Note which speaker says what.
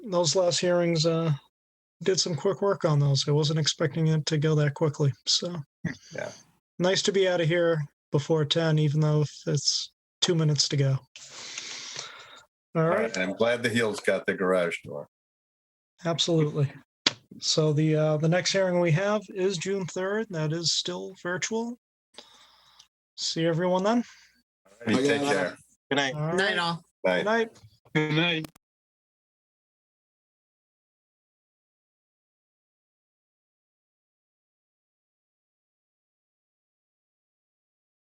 Speaker 1: those last hearings uh, did some quick work on those. I wasn't expecting it to go that quickly. So,
Speaker 2: Yeah.
Speaker 1: nice to be out of here before 10, even though it's two minutes to go. All right.
Speaker 2: I'm glad the heels got the garage door.
Speaker 1: Absolutely. So the uh, the next hearing we have is June third. That is still virtual. See everyone then.
Speaker 2: Alrighty,
Speaker 3: Oh, yeah,
Speaker 2: Take
Speaker 3: yeah.
Speaker 2: care.
Speaker 4: Good night.
Speaker 1: All right.
Speaker 5: Night all.
Speaker 2: Bye.
Speaker 1: Good night.
Speaker 6: Good night.